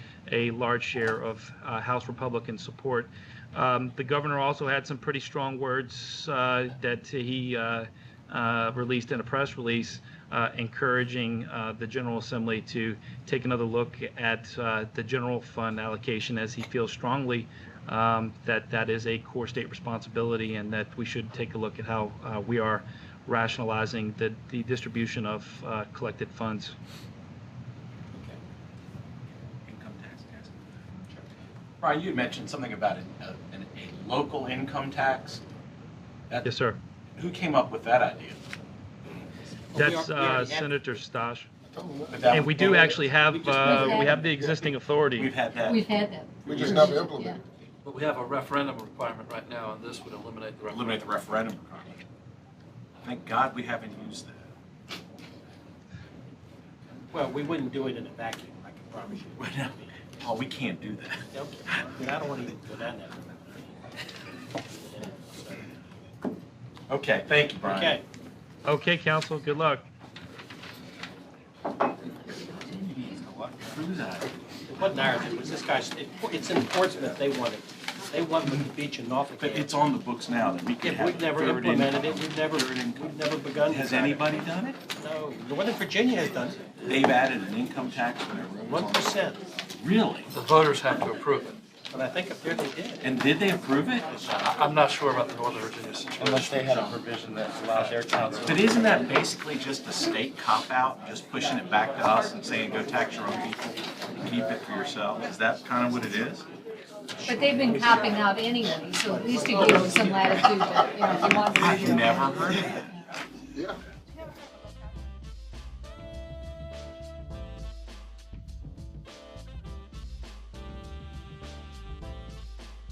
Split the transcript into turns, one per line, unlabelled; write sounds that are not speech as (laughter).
a large share of uh, House Republican support. Um, the governor also had some pretty strong words uh, that he uh, uh, released in a press release uh, encouraging uh, the General Assembly to take another look at uh, the general fund allocation as he feels strongly um, that that is a core state responsibility and that we should take a look at how uh, we are rationalizing the, the distribution of uh, collected funds.
Okay. Income tax, tax. Sure. Brian, you had mentioned something about an, a, an, a local income tax. That,
Yes, sir.
Who came up with that idea?
That's
we already
uh,
had-
Senator Stash.
But that
And we
was-
do actually have,
just
uh,
never-
we have the existing authority.
We've had that.
We've had that.
We just never implemented it.
But we have a referendum requirement right now, and this would eliminate the referendum.
eliminate the referendum requirement. Thank God we haven't used that.
Well, we wouldn't do it in a vacuum, I can promise you.
We're not- Oh, we can't do that.
Okay, (laughs) but I don't want to go down that.
Okay, thank you, Brian.
Okay,
Okay, council, good luck.
Through that.
it wasn't ours, it was this guy's, it- it's in Portsmouth, they want it. They want the beach in Norfolk.
But it's on the books now that we can
If
have.
we've never
third
implemented it,
income.
we've never, we've never begun.
Has
to-
anybody done it?
No, Northern Virginia has done
They've added an income tax for their
it,
rooms.
one
on-
percent,
Really?
The voters have to approve it.
but I think up there they did.
And did they approve it?
I- I'm not sure about the Northern Virginia situation.
Unless they had a provision that allowed their council.
But isn't that basically just a state cop-out, just pushing it back to us and saying, go tax your own people and keep it for yourself? Is that kind of what it is?
But they've been copping out anyway, so at least it gives them some latitude, but, you know, if you want to.
I've never heard of that.
Yeah,